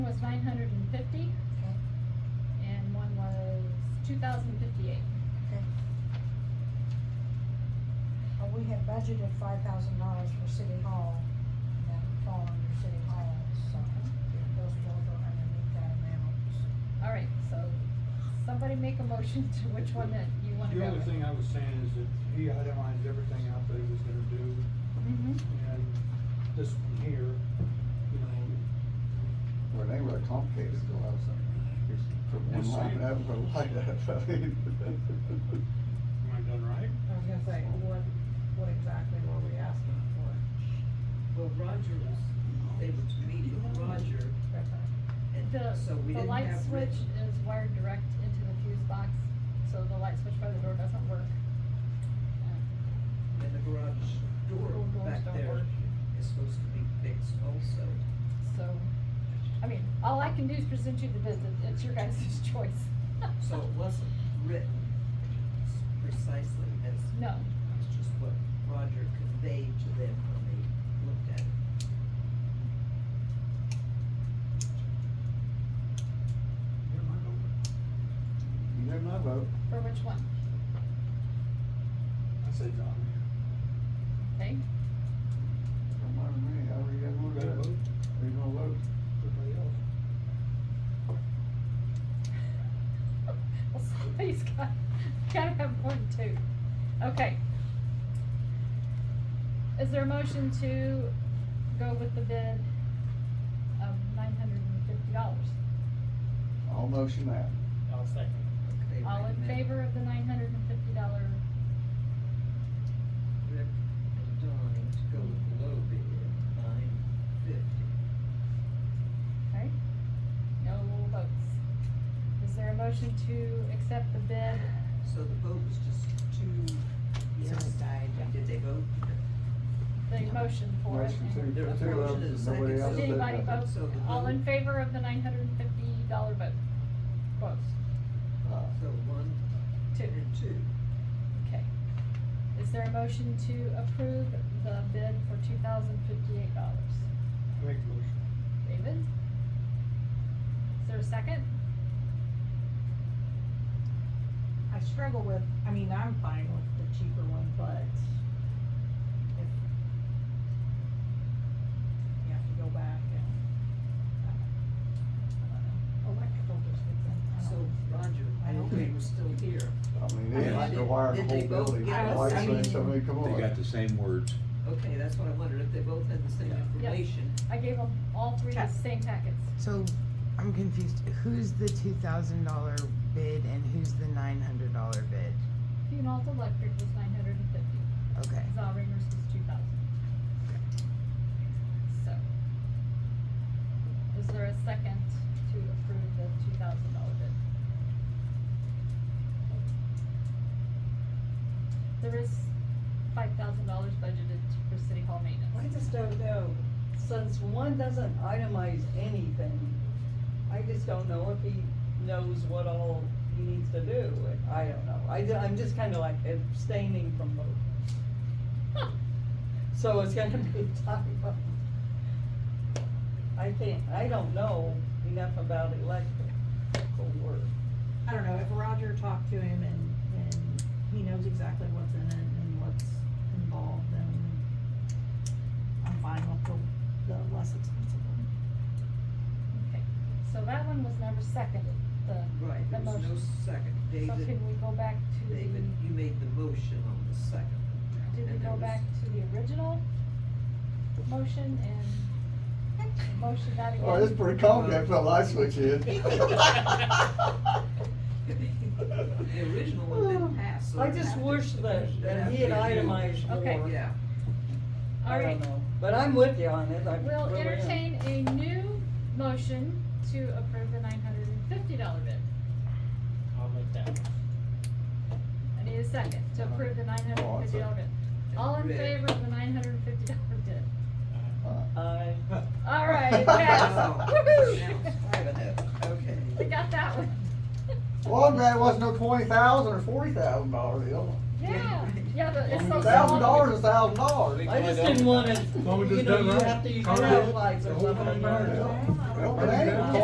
nine hundred and fifty, Okay, and one was two thousand fifty-eight. okay. And we had budgeted five thousand dollars for city hall, and that would fall under city hall, so those bills are underneath that amount. All right, so somebody make a motion to which one that you wanna The go only with. thing I was saying is that he itemized everything out that he was gonna do, Mhm. and this one here, you know, Well, they were complicated to have something. Put one Just line saying. up, put a line up. am I done I right? was gonna say, what, what exactly were we asking for? Well, Roger was, they were to meet with Roger, The, and so we the didn't light have switch Rich. is wired direct into the fuse box, so the light switch by the door doesn't work. Um, And the garage door Door doors back don't there work. is supposed to be fixed also. So, I mean, all I can do is present you the visit, it's your guys' choice. So it wasn't written precisely as, No, it's just what Roger conveyed to them when they looked at it. Yeah, my vote. You know my vote. for which one, I say John. okay? Don't mind me, I already got You one gotta vote, vote. Are you gonna vote? everybody else. Well, somebody's got, gotta have one too. Okay. Is there a motion to go with the bid of nine hundred and fifty dollars? I'll motion that. I'll second. Okay, All wait a in minute. favor of the nine hundred and fifty dollar, Rick and Don to go with the low bid, nine fifty. okay? No votes. Is there a motion to accept the bid? So the vote was just two, yes. Did they vote? The motion for it? Motion and- to, There was two votes, motion and a and second. nobody else Did did anybody nothing. vote? So the All in vote- favor of the nine hundred and fifty dollar vote? Votes, Aye. So one two. and two. Okay. Is there a motion to approve the bid for two thousand fifty-eight dollars? I make the motion. David? Is there a second? I struggle with, I mean, I'm fine with the cheaper one, but if you have to go back and, I don't know, electrical just gets in, I So don't. Roger, I hope they were still here. I mean, they had to wire the Did they whole vote? building. Yeah, Like I saying, mean- somebody, come They got the on. same words. Okay, that's what I wondered, if they both had the same Yeah. information. I gave them all three the Okay. same packets. So I'm confused. Who's the two thousand dollar bid and who's the nine hundred dollar bid? Funalt Electric was nine hundred and fifty, Okay. Zollringers was two thousand. So. Is there a second to approve the two thousand dollar bid? There is five thousand dollars budgeted for city hall maintenance. I just don't know, since one doesn't itemize anything, I just don't know if he knows what all he needs to do. I don't know, I, am just kinda like abstaining from voting. So it's gonna be tough. I can't, I don't know enough about electrical work. I don't know, if Roger talked to him and, and he knows exactly what's in it and what's involved, then I'm fine with the, the less expensive one. Okay, so that one was never seconded, the, Right, there the was no motion. second. So David, can we go back to the, David, you made the motion on the second. did we and there go was- back to the original motion and motion that again? Oh, it's pretty complicated, put a light switch in. The original one didn't pass, so. I it'd just have to- wish that, that he had it'd have to be you. itemized more. Okay. Yeah, All I right, don't know, but I'm with you on it, I really We'll am. entertain a new motion to approve the nine hundred and fifty dollar bid. I'll make that. Uh-huh. I need a second to approve the nine hundred and fifty dollar bid. All in Rick. favor of the nine hundred and fifty dollar bid? Aye. I- All right, it passed. Wow. Woo-hoo! five and a, okay. We got that one. Well, I'm glad it wasn't no twenty thousand or forty thousand dollar deal. Yeah, yeah, but it's so. Thousand small. dollars is thousand dollars. I just didn't wanna, Well, we you just know, done you right. have to, you All right. have lights or The whole something. thing matters. Well, but that ain't